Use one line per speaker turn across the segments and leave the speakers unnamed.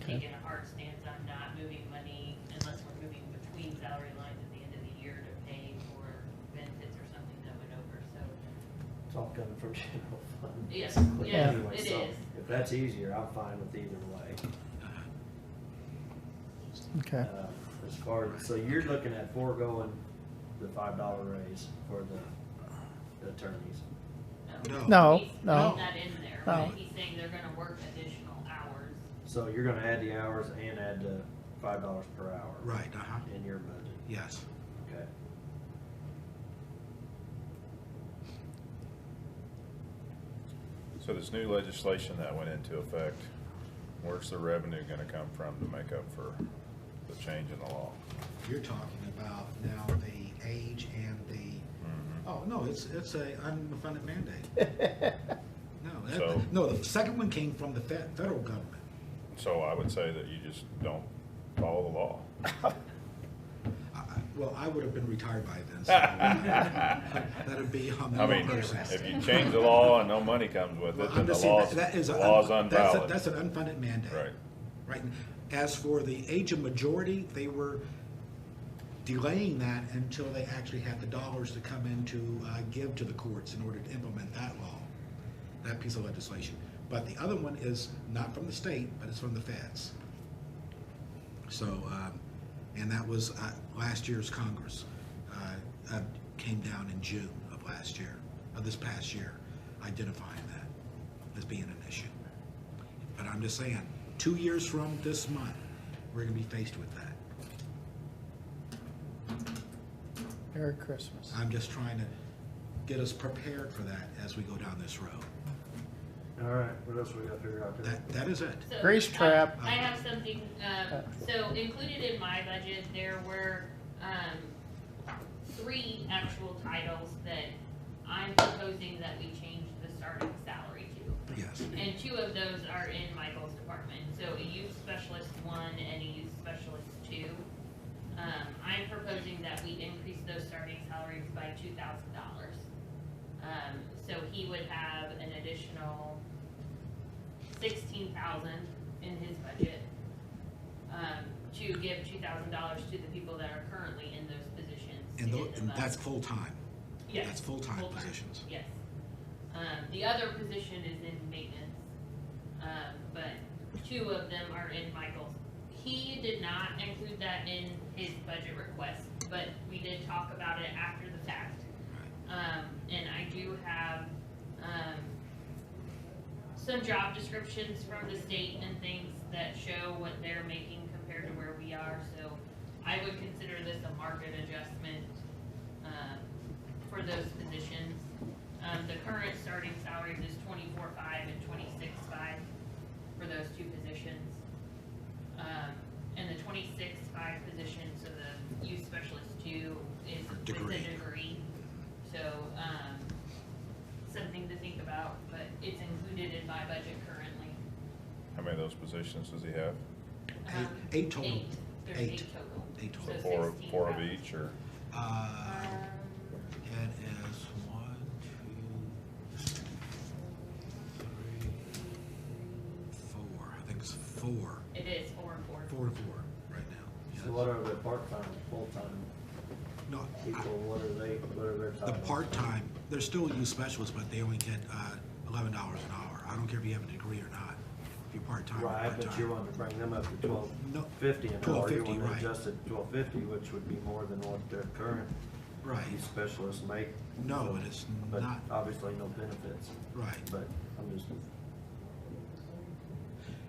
taken a hard stance on not moving money unless we're moving between salary lines at the end of the year to pay for benefits or something that went over, so.
It's all coming from general fund.
Yes,
basically,
yeah,
anyway,
it
so
is.
If that's easier, I'm fine with either way.
Okay,
Uh, As far, as so you're looking at foregoing the five dollar raise for the- the attorneys.
No,
He's
no.
putting that in there,
No.
but he's saying they're gonna work additional hours.
So you're gonna add the hours and add the five dollars per hour.
Right, uh-huh,
In your budget,
yes.
okay.
So this new legislation that went into effect, where's the revenue gonna come from to make up for the change in the law?
You're talking about now the age and the,
Mhm.
oh, no, it's, it's a unfunded mandate. No,
So-
that, no, the second one came from the fe- federal government.
So I would say that you just don't follow the law.
I- I- Well, I would have been retired by then, so that'd be on the
I mean,
longer
if
rest.
you change the law and no money comes with
Well,
it,
I'm
then the
just saying
law's,
that- that is
the
a-
law's
that's a-
unvalid.
That's an unfunded mandate.
Right.
Right. As for the age of majority, they were delaying that until they actually had the dollars to come in to uh, give to the courts in order to implement that law, that piece of legislation. But the other one is not from the state, but it's from the feds. So, um, and that was uh, last year's Congress, uh, uh, came down in June of last year, of this past year, identifying that as being an issue. But I'm just saying, two years from this month, we're gonna be faced with that.
Merry Christmas.
I'm just trying to get us prepared for that as we go down this road.
All right, what else we gotta figure out there?
That, that is it.
So,
Grease
I-
trap.
I have something, um,
Uh.
so included in my budget, there were, um, three actual titles that I'm proposing that we change the starting salary to.
Yes,
And two of those are in Michael's department, so a youth specialist one and a youth specialist two. Um, I'm proposing that we increase those starting salaries by two thousand dollars. Um, so he would have an additional sixteen thousand in his budget. Um, to give two thousand dollars to the people that are currently in those positions. to
and tho-
get them
and
up.
that's full-time.
Yes.
That's full-time
Full-time.
positions.
Yes. Um, the other position is in maintenance, um, but two of them are in Michael's. He did not include that in his budget request, but we did talk about it after the fact. Um, and I do have, um, some job descriptions from the state and things that show what they're making compared to where we are, so I would consider this a market adjustment, um, for those positions. Um, the current starting salaries is twenty-four five and twenty-six five for those two positions. Um, and the twenty-six five position, so the youth specialist two is
For
with
degree.
a degree. So, um, something to think about, but it's included in my budget currently.
How many of those positions does he have?
Eight,
Um,
eight total.
Eight, there's
Eight.
eight total.
Eight
So
So
total.
four,
16
four of
thousand.
each, or?
Uh,
Um,
it is one, two, three, four. I think it's four.
It is four and four.
Four and four right now.
So what are the part-time, full-time
Yes. No, I-
people, what are they, what are their
The
titles?
part-time, they're still youth specialists, but they only get uh, eleven dollars an hour. I don't care if you have a degree or not, if you're part-time or
Right, but you
part-time.
want to bring them up to twelve
No,
fifty an hour, you
12.50,
want to
right.
adjust it to twelve fifty, which would be more than what their current
Right,
youth specialists make.
no, it is
But
not,
obviously no benefits,
right.
but I'm just,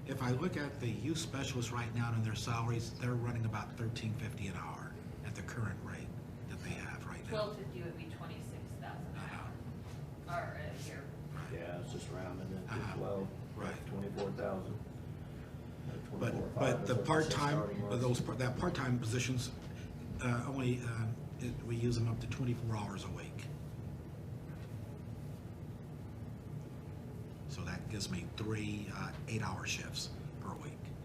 If I look at the youth specialists right now and their salaries, they're running about thirteen fifty an hour at the current rate that they have right now.
Twelve fifty would be twenty-six thousand an
Uh-huh.
hour, or a year.
yeah, it's just rounding it
Uh-huh.
to twelve,
Right.
twenty-four thousand.
But, but the part-time, those, par- that part-time positions, uh, only, um, it- we use them up to twenty-four hours a week. So that gives me three, uh, eight-hour shifts per week.